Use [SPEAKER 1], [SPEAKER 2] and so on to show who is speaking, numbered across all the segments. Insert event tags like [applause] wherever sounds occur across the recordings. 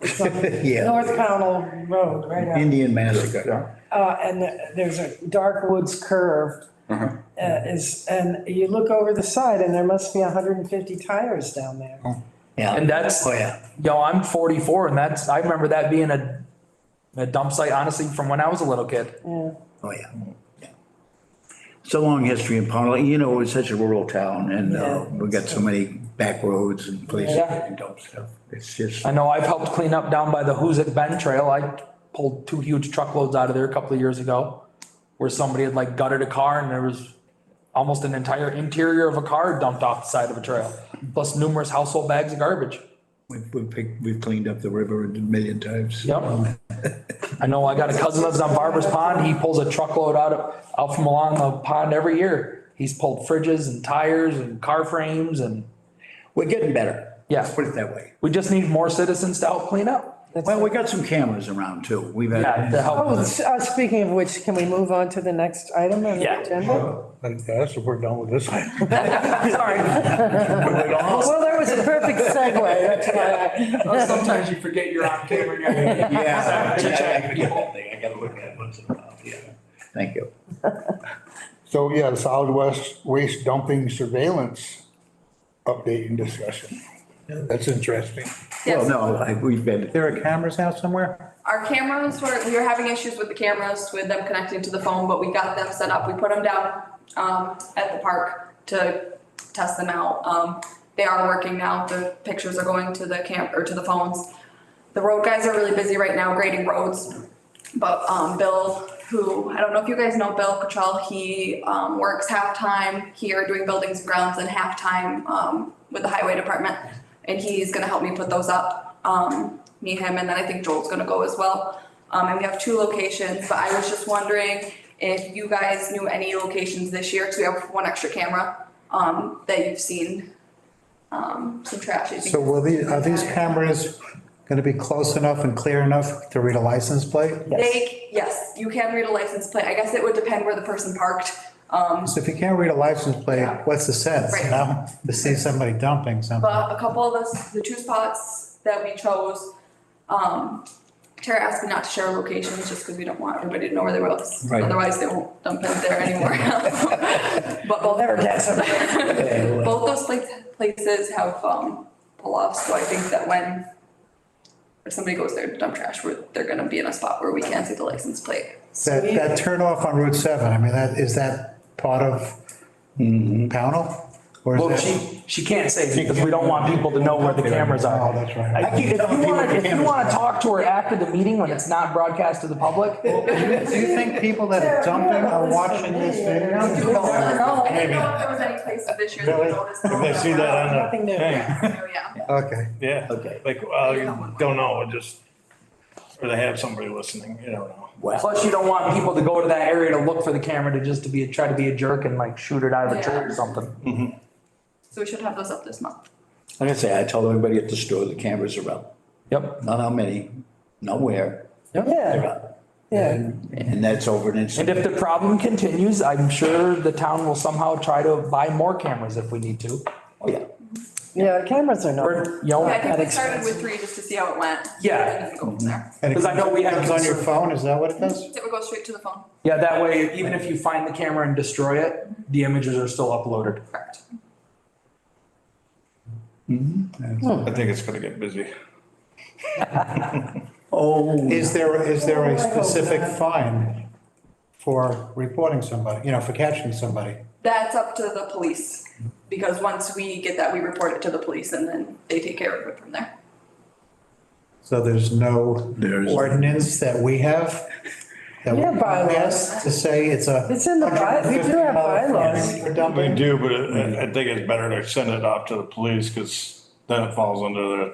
[SPEAKER 1] [laughs] Yeah,
[SPEAKER 2] North Pownell Road, right out.
[SPEAKER 1] Indian massacre.
[SPEAKER 3] Yeah.
[SPEAKER 2] Uh, and there's a dark woods curve.
[SPEAKER 3] Uh-huh.
[SPEAKER 2] Uh, is, and you look over the side and there must be hundred and fifty tires down there.
[SPEAKER 3] Oh.
[SPEAKER 1] Yeah.
[SPEAKER 4] And that's-
[SPEAKER 1] Oh, yeah.
[SPEAKER 4] Yo, I'm forty-four and that's, I remember that being a, a dump site, honestly, from when I was a little kid.
[SPEAKER 2] Yeah.
[SPEAKER 1] Oh, yeah. It's a long history in Pownell. You know, it's such a rural town and uh,
[SPEAKER 2] Yeah.
[SPEAKER 1] we've got so many back roads and places
[SPEAKER 4] Yeah.
[SPEAKER 1] and dump stuff. It's just,
[SPEAKER 4] I know I've helped clean up down by the Hoosic Bend Trail. I pulled two huge truckloads out of there a couple of years ago. Where somebody had like gutted a car and there was almost an entire interior of a car dumped off the side of a trail. Plus numerous household bags of garbage.
[SPEAKER 1] we've, we've picked- we've cleaned up the river a million times.
[SPEAKER 4] Yep. I know I got a cousin that's on Barber's Pond. He pulls a truckload out of, out from along the pond every year. He's pulled fridges and tires and car frames and,
[SPEAKER 1] We're getting better.
[SPEAKER 4] Yeah.
[SPEAKER 1] Let's Put it that way.
[SPEAKER 4] we just need more citizens to help clean up. [laughs]
[SPEAKER 1] Well, we got some cameras around too. We've
[SPEAKER 4] Yeah, to
[SPEAKER 1] had,
[SPEAKER 4] help.
[SPEAKER 2] Oh, s- uh, speaking of which, can we move on to the next item on
[SPEAKER 4] Yeah.
[SPEAKER 2] the agenda?
[SPEAKER 5] And yes, we're done with this.
[SPEAKER 4] Sorry.
[SPEAKER 2] Well, that was a perfect segue, that's why I.
[SPEAKER 4] [laughs] Sometimes you forget you're on
[SPEAKER 1] [laughs]
[SPEAKER 4] camera.
[SPEAKER 1] yeah. I gotta look at it once in a while, yeah. Thank you.
[SPEAKER 5] So, yeah, solid west waste dumping surveillance update and discussion. That's interesting.
[SPEAKER 1] Well,
[SPEAKER 6] Yes.
[SPEAKER 1] no, I- we've been,
[SPEAKER 3] There are cameras now somewhere?
[SPEAKER 6] Our cameras were, we were having issues with the cameras, with them connecting to the phone, but we got them set up. We put them down um, at the park to test them out. Um, They are working now. The pictures are going to the camp, or to the phones. The road guys are really busy right now grading roads. But um, Bill, who, I don't know if you guys know Bill Cottrell, he um, works half-time here doing buildings and grounds and half-time um, with the highway department. And he's gonna help me put those up, um, me, him, and then I think Joel's gonna go as well. Um, And we have two locations, but I was just wondering if you guys knew any locations this year, because we have one extra camera um, that you've seen. um, Some trash. I think.
[SPEAKER 3] So will these, are these cameras gonna be close enough and clear enough to read a license plate?
[SPEAKER 6] They, yes, you can read a license plate. I guess it would depend where the person parked. Um,
[SPEAKER 3] So if you can't read a license plate, what's the sense,
[SPEAKER 6] Right.
[SPEAKER 3] you know, to see somebody dumping something?
[SPEAKER 6] But a couple of us, the two spots that we chose, um, Tara asked me not to share locations just because we don't want everybody to know where they was.
[SPEAKER 1] Right.
[SPEAKER 6] Otherwise, they won't dump it there anymore. [laughs] But both.
[SPEAKER 2] Never guess.
[SPEAKER 6] [laughs] Both those pla- places have, um, pull-offs, so I think that when if somebody goes there to dump trash, we're, they're gonna be in a spot where we can't see the license plate.
[SPEAKER 3] That, that turn off on Route 7, I mean, that, is that part of Mm-hmm. Pownell? Or
[SPEAKER 4] Well,
[SPEAKER 3] is that?
[SPEAKER 4] she, she can't say because we don't want people to know where the cameras
[SPEAKER 3] Oh,
[SPEAKER 4] are.
[SPEAKER 3] that's right.
[SPEAKER 4] I keep, if you want, if you want to talk to her after the meeting when it's not broadcast to the public,
[SPEAKER 3] Do you think people that are dumping are watching this video?
[SPEAKER 6] No, I
[SPEAKER 7] Maybe.
[SPEAKER 6] didn't know if there was any places this year that
[SPEAKER 7] Really?
[SPEAKER 6] noticed.
[SPEAKER 7] If they see that on
[SPEAKER 2] Nothing new.
[SPEAKER 7] the thing,
[SPEAKER 6] Oh, yeah.
[SPEAKER 3] Okay.
[SPEAKER 7] yeah.
[SPEAKER 1] Okay.
[SPEAKER 7] Like, well, you don't know, it just, or they have somebody listening, you don't know.
[SPEAKER 1] well,
[SPEAKER 4] plus you don't want people to go to that area to look for the camera to just to be, try to be a jerk and like shoot it out of a tree or something.
[SPEAKER 6] So we should have those up this month.
[SPEAKER 1] like I say, I told everybody at the store, the cameras are up.
[SPEAKER 4] Yep.
[SPEAKER 1] Not how many, not where, they're
[SPEAKER 2] Yeah,
[SPEAKER 1] up.
[SPEAKER 2] yeah.
[SPEAKER 1] And that's over an
[SPEAKER 4] And
[SPEAKER 1] incident.
[SPEAKER 4] if the problem continues, I'm sure the town will somehow try to buy more cameras if we need to.
[SPEAKER 1] Oh, yeah.
[SPEAKER 2] Yeah, cameras are not.
[SPEAKER 4] Or, you know,
[SPEAKER 6] Yeah, I think
[SPEAKER 4] at
[SPEAKER 6] we started
[SPEAKER 4] expense.
[SPEAKER 6] with three just to see how it went.
[SPEAKER 4] Yeah.
[SPEAKER 6] And then go from there.
[SPEAKER 3] And it
[SPEAKER 4] Because I know we had
[SPEAKER 3] comes on your
[SPEAKER 4] concern-
[SPEAKER 3] phone, is that what it does?
[SPEAKER 6] It would go straight to the phone.
[SPEAKER 4] Yeah, that way, even if you find the camera and destroy it, the images are still uploaded.
[SPEAKER 6] Correct.
[SPEAKER 7] I think it's gonna get busy.
[SPEAKER 1] Oh,
[SPEAKER 3] Is there, is there a specific fine for reporting somebody, you know, for catching somebody?
[SPEAKER 6] That's up to the police, because once we get that, we report it to the police and then they take care of it from there.
[SPEAKER 3] So there's no
[SPEAKER 1] There's-
[SPEAKER 3] ordinance that we have? that we
[SPEAKER 2] Yeah, bylaws.
[SPEAKER 3] pass To say it's a.
[SPEAKER 2] It's in the by- we do have
[SPEAKER 3] $150
[SPEAKER 2] bylaws.
[SPEAKER 3] fine for
[SPEAKER 7] We
[SPEAKER 3] dumping?
[SPEAKER 7] do, but I, I think it's better to send it off to the police, because then it falls under the,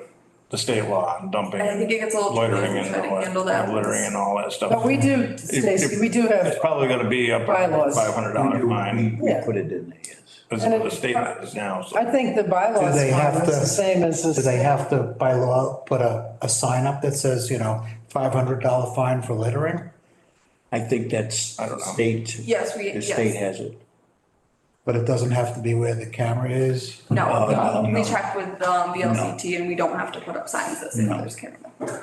[SPEAKER 7] the state law and dumping.
[SPEAKER 6] I think it gets a little
[SPEAKER 7] Loitering and
[SPEAKER 6] confusing trying to
[SPEAKER 7] all
[SPEAKER 6] handle that.
[SPEAKER 7] that, littering and all that stuff.
[SPEAKER 2] But we do,
[SPEAKER 7] It-
[SPEAKER 2] Stacy,
[SPEAKER 7] it-
[SPEAKER 2] we do have,
[SPEAKER 7] It's probably gonna be up to
[SPEAKER 2] Bylaws.
[SPEAKER 7] five hundred dollar fine,
[SPEAKER 1] we
[SPEAKER 2] Yeah.
[SPEAKER 1] put it in there, yes.
[SPEAKER 7] as
[SPEAKER 2] And
[SPEAKER 7] the
[SPEAKER 2] it's-
[SPEAKER 7] statement is now, so.
[SPEAKER 2] I think the bylaws
[SPEAKER 3] Do they have
[SPEAKER 2] are the
[SPEAKER 3] to-
[SPEAKER 2] same as
[SPEAKER 3] Do they
[SPEAKER 2] this.
[SPEAKER 3] have to by law put a, a sign up that says, you know, five hundred dollar fine for littering?
[SPEAKER 1] I think that's
[SPEAKER 7] I don't know.
[SPEAKER 1] state.
[SPEAKER 6] Yes, we-
[SPEAKER 1] The
[SPEAKER 6] yes.
[SPEAKER 1] state has it.
[SPEAKER 3] but it doesn't have to be where the camera is.
[SPEAKER 6] No,
[SPEAKER 1] no,
[SPEAKER 6] we
[SPEAKER 1] no.
[SPEAKER 7] Uh,
[SPEAKER 6] checked with um, VLCT and we don't have to put up signs that say there's camera.